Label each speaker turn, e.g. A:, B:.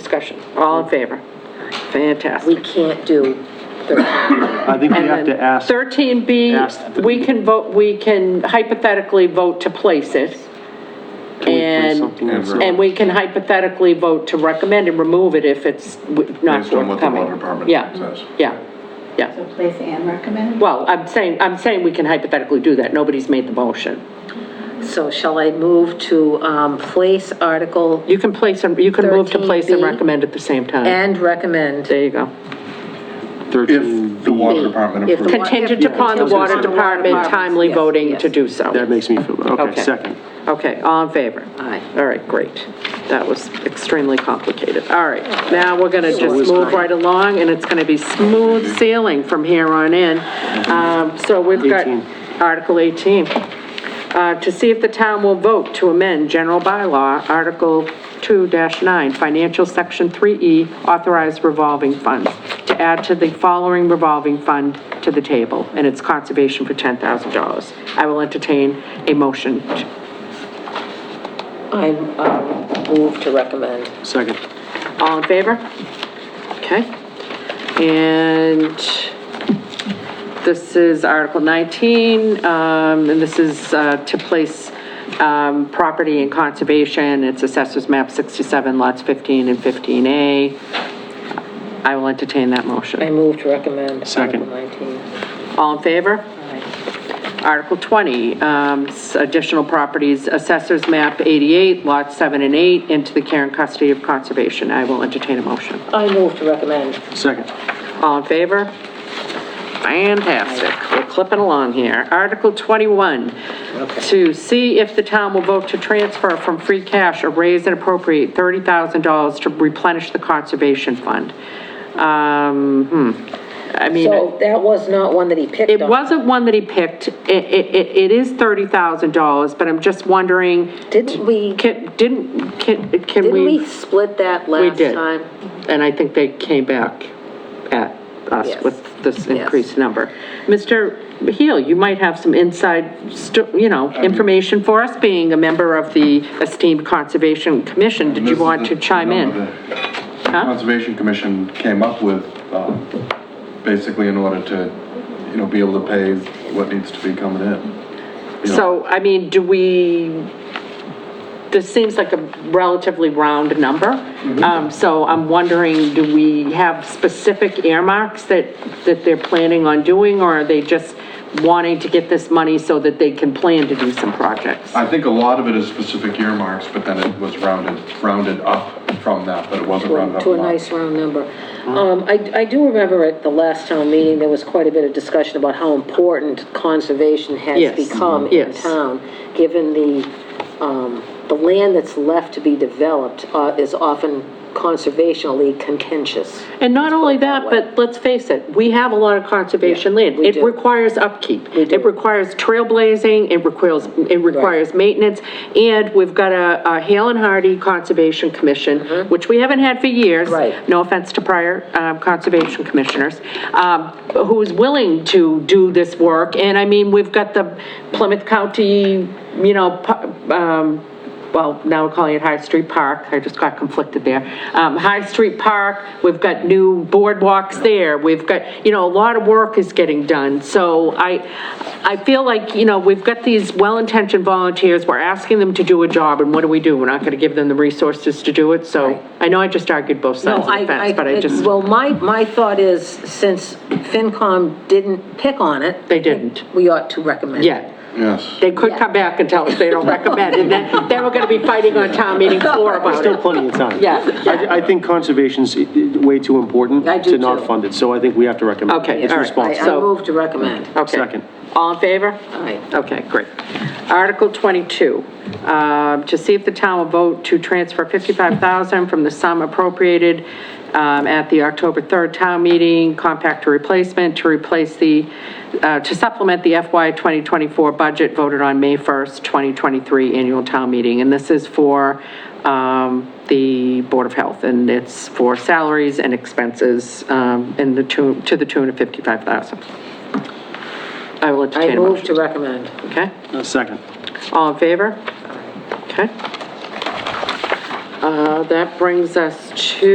A: discussion? All in favor?
B: We
A: Fantastic.
B: can't do 13.
C: I think we have
A: And then
C: to ask,
A: 13B,
C: ask-
A: we can vote, we can hypothetically vote to place it.
C: can we put
A: And,
C: something in
D: Ever.
A: and we can hypothetically vote to recommend and remove it if it's w- not forthcoming.
D: Based on what the water department
A: Yeah,
D: says.
A: Yeah, yeah.
E: So place and recommend?
A: Well, I'm saying, I'm saying we can hypothetically do that. Nobody's made the motion.
B: So shall I move to um, place Article
A: You can place, and you can move to place and
B: 13B.
A: recommend at the same time.
B: and recommend?
A: There you go.
C: 13,
D: If the water department
B: If the
D: approves.
B: wa-
A: Contingent
B: if-
A: upon the
B: contingent
A: water
B: upon the water
A: department
B: department,
A: timely
B: yes,
A: voting
B: yes.
A: to do so.
C: that makes me feel, okay, second.
A: Okay, all in favor?
B: Aye.
A: All right, great. That was extremely complicated. All right, now we're going to just move right along, and it's going to be smooth sailing from here on in. Um, So we've got
C: 18.
A: Article 18. Uh, To see if the town will vote to amend general bylaw, Article 2-9, Financial Section 3E, Authorized Revolving Fund, to add to the following revolving fund to the table, and its conservation for $10,000. I will entertain a motion to
B: I um, move to recommend.
C: Second.
A: All in favor? Okay. And this is Article 19, um, and this is uh, to place um, property in conservation. It's Assessors Map 67, lots 15 and 15A. I will entertain that
B: I
A: motion.
B: move to recommend Article
C: Second.
B: 19.
A: All in favor? Article 20, um, s- additional properties, Assessors Map 88, lots 7 and 8, into the care and custody of conservation. I will entertain a motion.
B: I move to recommend.
C: Second.
A: All in favor? Fantastic, we're clipping along here. Article 21, to see if the town will vote to transfer from free cash or raise and appropriate $30,000 to replenish the conservation fund. Um, hmm, I mean.
B: So that was not one that he picked on.
A: It wasn't one that he picked. It, it, it- it is thirty thousand dollars, but I'm just wondering.
B: Didn't we-
A: Can, didn't, can, can
B: Didn't
A: we?
B: we split that
A: We
B: last
A: did.
B: time?
A: And I think they came back at us
B: Yes.
A: with this
B: Yes.
A: increased number. Mr. Heel, you might have some inside, sto- you know, information for us, being a member of the esteemed Conservation Commission. Did
D: This
A: you
D: is
A: want
D: the-
A: to chime
D: the
A: in?
D: number that the Conservation Commission came up with, um, basically in order to, you know, be able to pay what needs to be coming in. you know.
A: So, I mean, do we, this seems like a relatively round number. Um, so I'm wondering, do we have specific earmarks that, that they're planning on doing? Or are they just wanting to get this money so that they can plan to do some projects?
D: I think a lot of it is specific earmarks, but then it was rounded, rounded up from that, but it wasn't rounded up.
B: to a
D: enough.
B: nice round number. Um, I, I do remember at the last town meeting, there was quite a bit of discussion about how important conservation has
A: Yes,
B: become in
A: yes.
B: town, given the, um, the land that's left to be developed uh, is often conservationally contentious.
A: And not only that, but let's face it, we have a lot of conservation land.
B: we
A: It
B: do.
A: requires upkeep.
B: We do.
A: It requires trailblazing, it requires, it requires maintenance, and we've got a, a Hale and Hardy Conservation Commission, which we haven't had for years.
B: Mm-hmm. Right.
A: No offense to prior, um, conservation commissioners, um, who's willing to do this work. And I mean, we've got the Plymouth County, you know, pu- um, well, now we're calling it High Street Park, I just got conflicted there. Um, High Street Park, we've got new boardwalks there, we've got, you know, a lot of work is getting done. So I, I feel like, you know, we've got these well-intentioned volunteers, we're asking them to do a job, and what do we do? We're not gonna give them the resources to do it, so I know I just argued both sides
B: No,
A: of the
B: I,
A: fence, but I just,
B: Well, my, my thought is, since FinCom didn't pick on it,
A: they didn't.
B: we ought to recommend.
A: Yeah.
D: Yes.
A: They could come back and tell us they don't recommend, and then, then we're gonna be fighting on town meeting floor about
C: Still
A: it.
C: plenty of time.
A: Yeah.
C: I, I think conservation's i- i- way too important
B: I do
C: to
B: too.
C: not fund it, so I think we have to recommend.
A: Okay,
C: It's
A: all right.
B: I,
C: responsible.
B: I
A: So- Uh,
B: move to recommend.
A: Okay.
C: Second.
A: All in favor?
B: Aye.
A: Okay, great. Article 22, um, to see if the town will vote to transfer 55000 from the sum appropriated um, at the October 3rd town meeting, compact to replacement, to replace the, uh, to supplement the FY 2024 budget voted on May 1st, 2023 annual town meeting. And this is for um, the Board of Health, and it's for salaries and expenses um, in the tune, to the tune of 55000 I will entertain
B: I
A: a motion.
B: move to recommend.
A: Okay,
C: Uh, Second.
A: all in favor? Okay. Uh, That brings us to